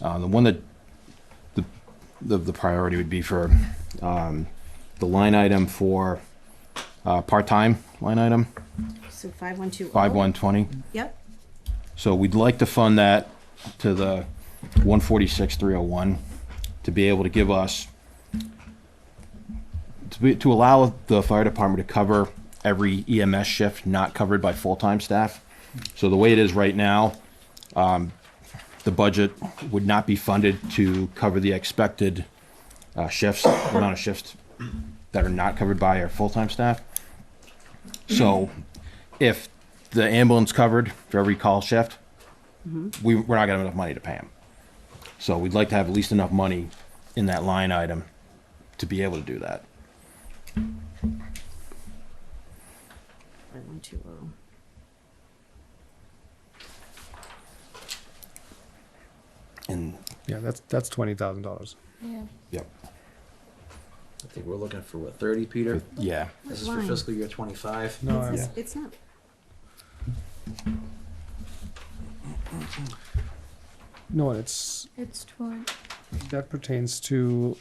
Uh, the one that, the, the, the priority would be for, um, the line item for, uh, part-time line item, So five one two. oh? five one twenty. Yep, So we'd like to fund that to the one forty-six, three oh one, to be able to give us, to be, to allow the fire department to cover every EMS shift not covered by full-time staff. So the way it is right now, um, the budget would not be funded to cover the expected, uh, shifts, amount of shifts that are not covered by our full-time staff. So if the ambulance covered for every call shift, we, we're not gonna have enough money to pay them. So we'd like to have at least enough money in that line item to be able to do that. five one two oh. And, Yeah, that's that's twenty thousand dollars. Yeah. yep, I think we're looking for what, thirty, Peter? yeah, This is for Line. fiscal year twenty-five. No, It's- I, It's not. no, it's It's toward. that pertains to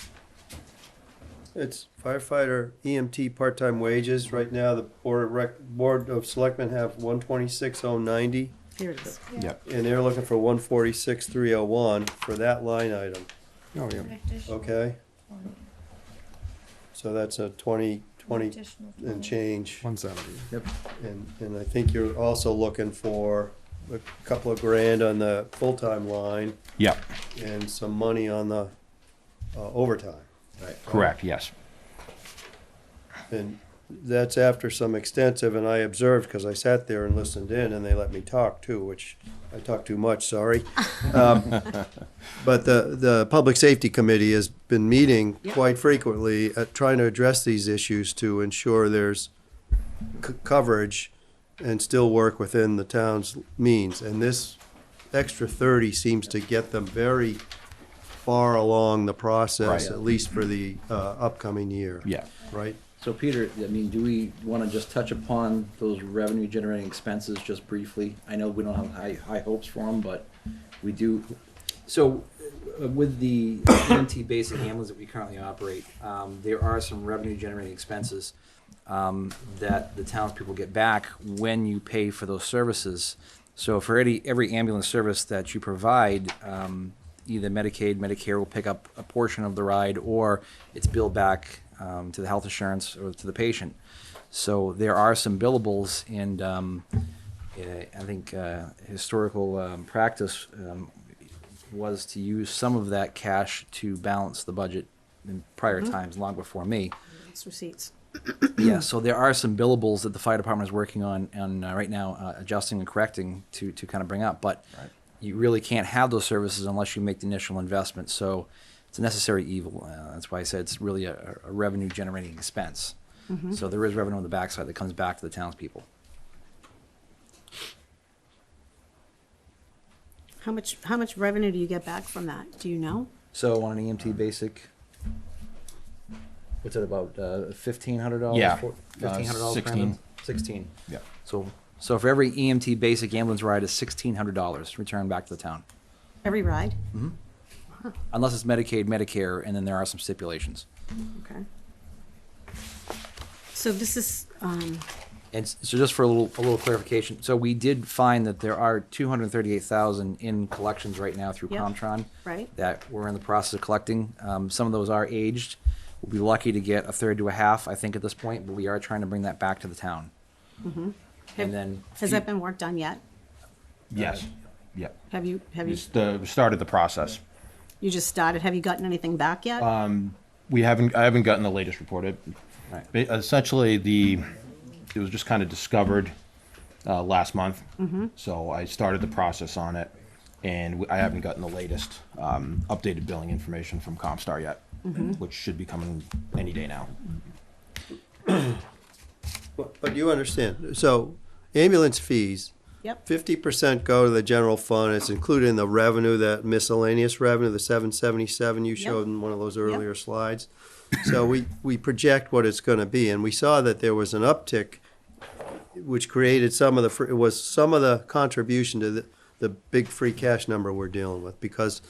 It's firefighter EMT part-time wages. Right now, the Board of Rec, Board of Selectmen have one twenty-six oh ninety, Here it is. yep. and they're looking for one forty-six three oh one for that line item, oh yeah. okay? So that's a twenty, twenty and change. One seventy. And, and I think you're also looking for a couple of grand on the full-time line Yep, and some money on the uh, overtime. Right. correct, yes. And that's after some extensive, and I observed, because I sat there and listened in, and they let me talk too, which I talk too much, sorry. Um, But the, the Public Safety Committee has been meeting Yep. quite frequently, at trying to address these issues to ensure there's c- coverage and still work within the town's means. And this extra thirty seems to get them very far along the process, Right. at least for the uh, upcoming year. Yeah. Right? So Peter, I mean, do we wanna just touch upon those revenue generating expenses just briefly? I know we don't have high, high hopes for them, but we do, So uh, with the EMT basic ambulance that we currently operate, um, there are some revenue generating expenses um, that the townspeople get back when you pay for those services. So for any, every ambulance service that you provide, um, either Medicaid, Medicare will pick up a portion of the ride or it's billed back um, to the health insurance or to the patient. So there are some billables and um, eh, I think uh, historical um, practice um, was to use some of that cash to balance the budget in prior times, long before me. It's receipts. yeah, so there are some billables that the fire department is working on and uh, right now uh, adjusting and correcting to to kind of bring up. But you really can't have those services unless you make the initial investment. So it's a necessary evil. Uh, that's why I said it's really a, a revenue generating expense. So there is revenue on the backside that comes back to the townspeople. How much, how much revenue do you get back from that? Do you know? So on an EMT basic, what's it about uh, fifteen hundred dollars? Yeah, uh, fifteen hundred dollars. 16. Sixteen. Yeah. So so for every EMT basic ambulance ride is sixteen hundred dollars returned back to the town, Every ride? unless it's Medicaid, Medicare, and then there are some stipulations. Mm-hmm. Okay. So this is, um, And s- so just for a little, a little clarification, so we did find that there are two hundred and thirty-eight thousand in collections right now through Yep. Comtron. Right. That we're in the process of collecting. Um, some of those are aged. We'll be lucky to get a third to a half, I think, at this point, but we are trying to bring that back to the town. And then. Mm-hmm. has that been worked on yet? Yes, yep. Have you, have you, It's the, we started the process. you just started? Have you gotten anything back yet? Uh, We haven't, I haven't gotten the latest report. It- Right. ba- Essentially, the, it was just kind of discovered, uh, last month. So I started the process on it and w- I haven't gotten the latest, um, updated billing information from Comstar yet, which should be coming any day now. But but you understand, so ambulance fees, Yep, fifty percent go to the general fund, it's included in the revenue, that miscellaneous revenue, the seven seventy-seven you showed in one of those earlier slides. So we, we project what it's gonna be, and we saw that there was an uptick, which created some of the, fr- it was some of the contribution to the, the big free cash number we're dealing with, because